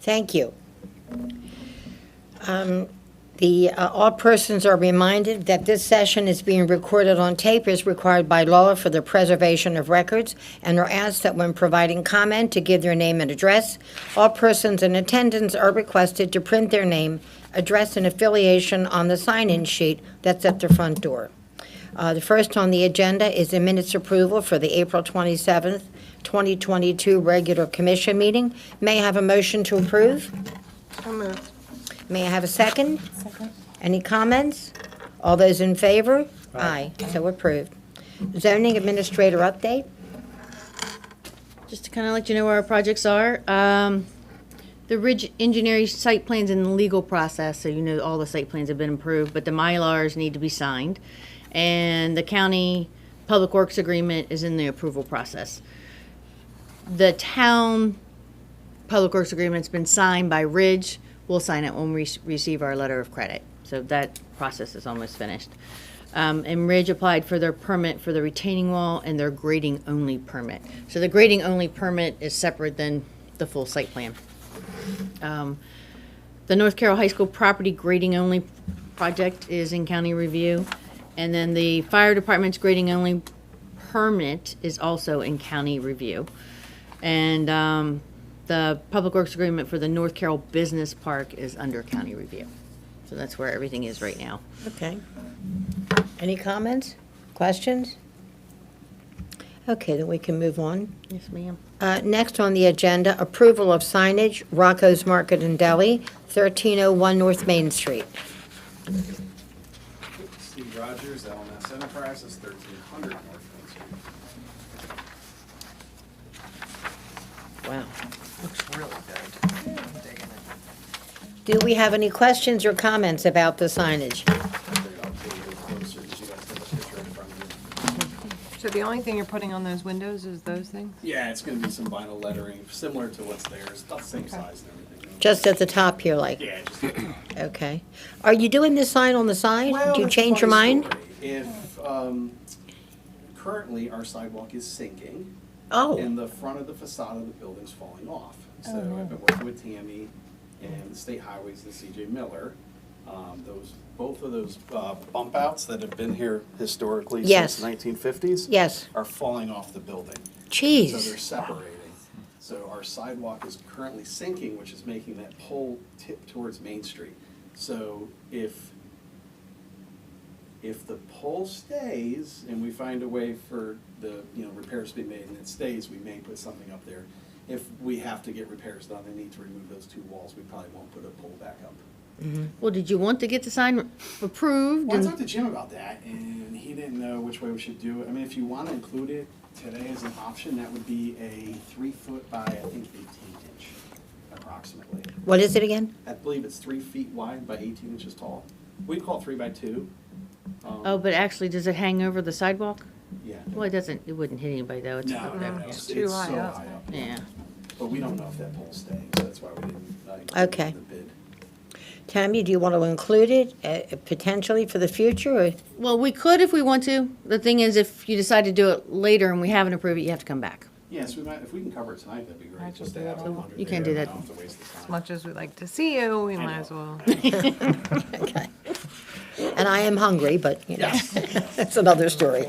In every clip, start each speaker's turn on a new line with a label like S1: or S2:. S1: Thank you. Um, The, uh, all persons are reminded that this session is being recorded on tape as required by law for the preservation of records and are asked that when providing comment to give their name and address. All persons in attendance are requested to print their name, address, and affiliation on the sign-in sheet that's at the front door. Uh, The first on the agenda is the minutes approval for the April 27th, 2022 regular commission meeting. May I have a motion to approve? May I have a second? Second. Any comments? All those in favor? Aye. So approved. Zoning administrator update?
S2: Just to kind of let you know where our projects are, um, the Ridge Engineering site plan's in the legal process, so you know all the site plans have been approved, but the Mylars need to be signed. And the county public works agreement is in the approval process. The town public works agreement's been signed by Ridge. We'll sign it when we s- receive our letter of credit. So that process is almost finished. Um, and Ridge applied for their permit for the retaining wall and their grading only permit. So the grading only permit is separate than the full site plan. Um, the North Carroll High School property grading only project is in county review. And then the fire department's grading only permit is also in county review. And um, the public works agreement for the North Carroll Business Park is under county review. So that's where everything is right now.
S1: Okay. Any comments? Questions? Okay, then we can move on.
S2: Yes, ma'am.
S1: Uh, Next on the agenda, approval of signage, Rocco's Market and Deli, 1301 North Main Street.
S3: Steve Rogers, LMS Enterprises, thirteen hundred North Main Street.
S1: Wow.
S4: Looks really good. I'm digging it.
S1: Do we have any questions or comments about the signage?
S3: I figured I'll take it closer, 'cause you guys have a picture in front of
S5: So the only thing you're putting on those windows is those things?
S3: you. Yeah, it's gonna be some vinyl lettering, similar to what's there, it's about the same size and everything.
S1: Just at the top here, like?
S3: Yeah, just.
S1: Okay. Are you doing this sign on the side?
S3: Well,
S1: Do you
S3: that's a
S1: change your
S3: funny
S1: mind?
S3: story. If, um, currently our sidewalk is sinking
S1: Oh,
S3: and the front of the facade of the building's falling off. So I've been working with Tammy and the state highways and CJ Miller. Um, those, both of those, uh, bump outs that have been here historically
S1: Yes.
S3: since nineteen fifties.
S1: yes.
S3: are falling off the building. So they're
S1: Jeez.
S3: separating. So our sidewalk is currently sinking, which is making that pole tip towards Main Street. So if, if the pole stays and we find a way for the, you know, repairs to be made and it stays, we may put something up there. If we have to get repairs done and need to remove those two walls, we probably won't put a pole back up.
S2: Well, did you want to get the sign approved?
S3: Well, I
S2: and-
S3: talked to Jim about that, and he didn't know which way we should do it. I mean, if you want to include it today as an option, that would be a three foot by, I think, eighteen inch approximately.
S1: What is it again?
S3: I believe it's three feet wide by eighteen inches tall. We'd call it three by two. Um,
S2: Oh, but actually, does it hang over the sidewalk?
S3: Yeah.
S2: Well, it doesn't, it wouldn't hit anybody though. It's
S3: No,
S2: up
S3: no,
S2: there.
S3: no,
S2: Yeah.
S3: it's,
S5: too
S3: it's so
S5: high
S3: high
S5: up.
S3: up.
S2: Yeah.
S3: But we don't know if that pole's staying, so that's why we didn't, uh, include it
S1: Okay.
S3: in the bid.
S1: Tammy, do you want to include it uh, potentially for the future? or-
S2: Well, we could if we want to. The thing is, if you decide to do it later and we haven't approved it, you have to come back.
S3: Yes, we might, if we can cover it tonight, that'd be
S5: I
S3: great, just
S5: just
S3: to have it
S5: do that.
S3: under there.
S2: You can't do
S3: and
S2: that.
S3: not have to waste the time.
S5: As much as we'd like to see you, we
S3: I
S5: might
S3: know.
S5: as well.
S1: And I am hungry, but, you know,
S3: Yes.
S1: that's another story.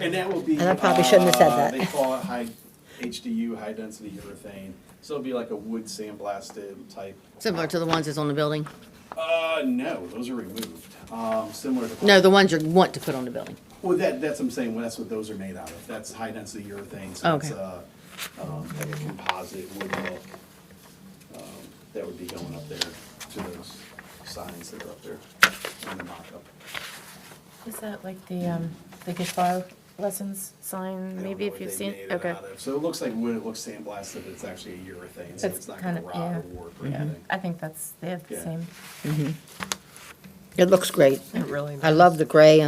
S3: And that will be.
S1: And I probably shouldn't have said
S3: uh,
S1: that.
S3: They call it high HDU, high density urethane. So it'll be like a wood sandblasted type.
S2: Similar to the ones that's on the building.
S3: Uh, no, those are removed. Um, similar to.
S2: No, the ones you want to put on the building.
S3: Well, that, that's what I'm saying, well, that's what those are made out of. That's high density urethane, so it's
S2: Okay.
S3: uh um, like a composite wood look. um, That would be going up there to those signs that are up there on the mock-up.
S6: Is that like the, um, the guitar lessons
S3: I
S6: sign,
S3: don't
S6: maybe
S3: know
S6: if
S3: what
S6: you've
S3: they
S6: seen,
S3: made it
S6: okay.
S3: out of. So it looks like wood, it looks sandblasted, but it's actually a urethane, so
S6: That's
S3: it's not
S6: kind
S3: gonna rot
S6: of-
S3: or
S6: yeah.
S3: warp or anything.
S6: I think that's, they have the
S3: Yeah.
S6: same.
S1: It looks great.
S5: It really
S1: I love the gray